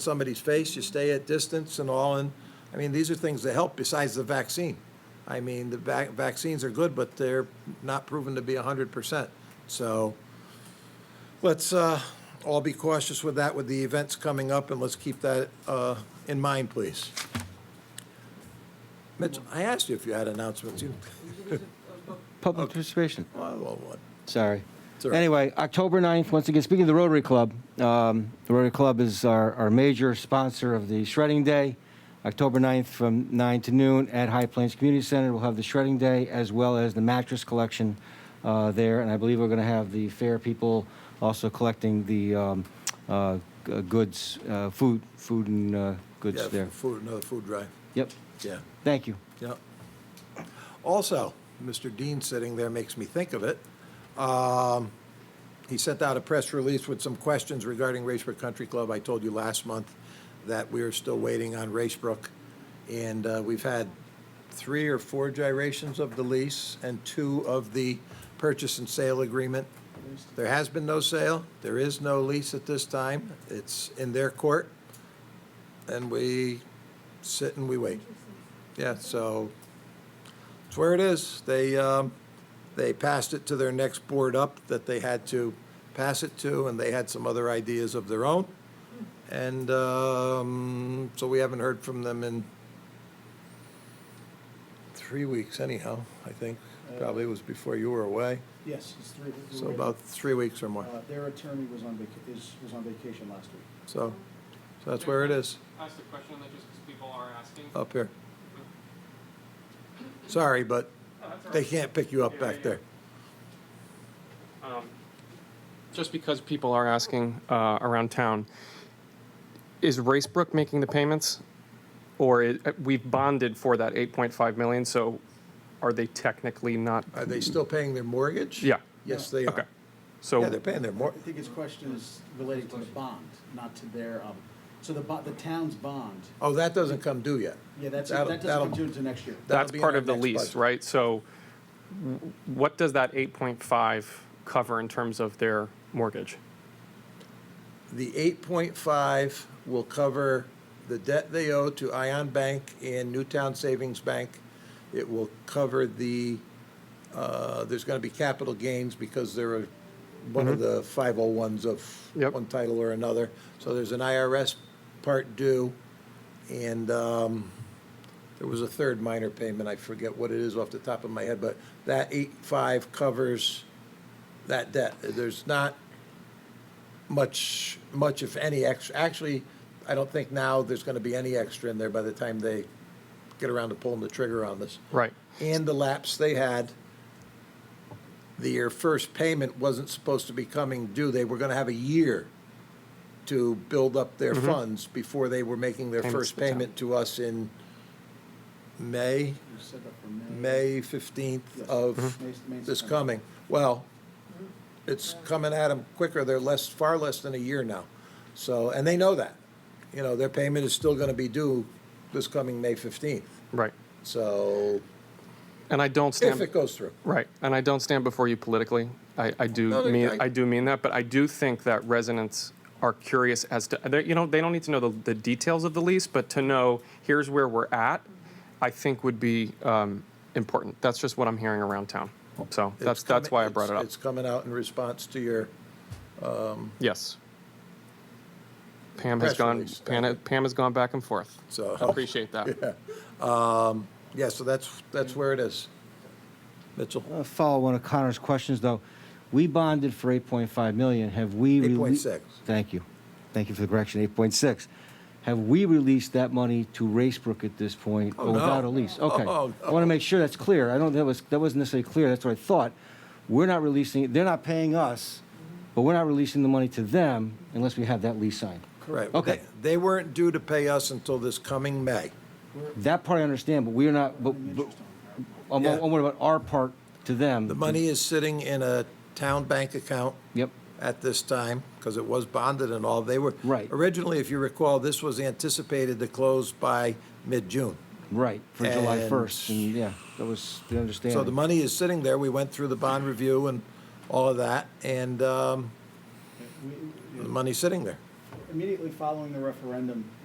somebody's face, you stay at distance and all, and, I mean, these are things that help besides the vaccine. I mean, the vac- vaccines are good, but they're not proven to be hundred percent. So let's, uh, all be cautious with that, with the events coming up, and let's keep that, uh, in mind, please. Mitch, I asked you if you had announcements. You, Public participation, well, well, what? sorry. It's all right. Anyway, October 9th, once again, speaking of the Rotary Club, um, the Rotary Club is our, our major sponsor of the Shredding Day. October 9th from 9 to noon at High Plains Community Center, we'll have the Shredding Day as well as the mattress collection uh, there. And I believe we're going to have the fair people also collecting the um, uh, g- uh, goods, uh, food, food and uh, goods Yeah, there. Food, another food drive, Yep, yeah. thank you. Yep. Also, Mr. Dean sitting there makes me think of it. Um, He sent out a press release with some questions regarding Racebrook Country Club. I told you last month that we are still waiting on Racebrook. And uh, we've had three or four gyrations of the lease and two of the purchase and sale agreement. There has been no sale. There is no lease at this time. It's in their court. And we sit and we wait. Yeah, so it's where it is. They, um, they passed it to their next board up that they had to pass it to, and they had some other ideas of their own. And, um, so we haven't heard from them in three weeks anyhow, I think. Probably was before you were away, Yes, it's three. we so were- about three weeks or more. uh, Their attorney was on vaca, is, was on vacation last week. So, so that's where it is, ask the question on that just because people are asking. up here. Sorry, but they can't pick you up back there. Just because people are asking uh, around town, is Racebrook making the payments? Or i- we've bonded for that 8.5 million, so are they technically not? Are they still paying their mortgage? Yeah. Yes, they Okay. are. Yeah, they're So, paying their mor, I think his question is related to the bond, not to their, um, so the, bo- the town's bond, oh, that doesn't come due yet. yeah, that's, That'll- that doesn't that'll- come due until next year. that'll that's be in part our of the next lease, budget. right? So w- what does that 8.5 cover in terms of their mortgage? The eight point five will cover the debt they owe to Ion Bank and Newtown Savings Bank. It will cover the, uh, there's gonna be capital gains because they're a- one of the five oh ones of Yep. one title or another. So there's an IRS part due, and, um, There was a third minor payment, I forget what it is off the top of my head, but that eight-five covers that debt. There's not much, much if any extra, actually, I don't think now there's gonna be any extra in there by the time they get around to pulling the trigger on this. Right. And the lapse they had, their first payment wasn't supposed to be coming due. They were gonna have a year to build up their funds before they were making their Mm-hmm. Payments first to the town. payment to us in May, You set up for May. May 15th Yes. Mm-hmm. of May- May, this September. coming. Well, it's coming at them quicker, they're less, far less than a year now. So, and they know that. You know, their payment is still going to be due this coming May 15th. Right. So, And I don't stand. if it goes through. Right, and I don't stand before you politically. I, I do No, no, mean I- I, do mean that, but I do think that residents are curious as to they- you know they don't need to know the, the details of the lease, but to know here's where we're at, I think would be um, important. That's just what I'm hearing around town. So It's that's that's coming- why I brought it it's- up. It's coming out in response to your, yes. Pam has Press gone. release, Oh. Pam, okay. Pam has gone back and forth. So- I appreciate that. yeah, so that's, that's where it is. Mitchell, Uh, follow one of Connor's questions, though. We bonded for 8.5 million. Have we? rele- 8.6. Thank you. Thank you for the correction, 8.6. Have we released that money to Racebrook at this point? Oh, no. Without a lease? Okay. Oh, I want to make sure that's clear. I don't, that was, that wasn't necessarily clear. That's what I thought. We're not releasing, it. they're not paying us, but we're not releasing the money to them unless we have that lease signed. correct. Okay. They- They weren't due to pay us until this coming May. That part I understand, but we're not, but, but, I'm, Yeah. I'm worried about our part to them. The money is sitting in a town bank account. Yep. at this time, because it was bonded and all, they were. Right. Originally, if you recall, this was anticipated to close by mid-June. Right, for July And- 1st, and yeah, that was the understanding. So the money is sitting there, we went through the bond review and all of that, and um, We- the money's sitting there. immediately following the referendum,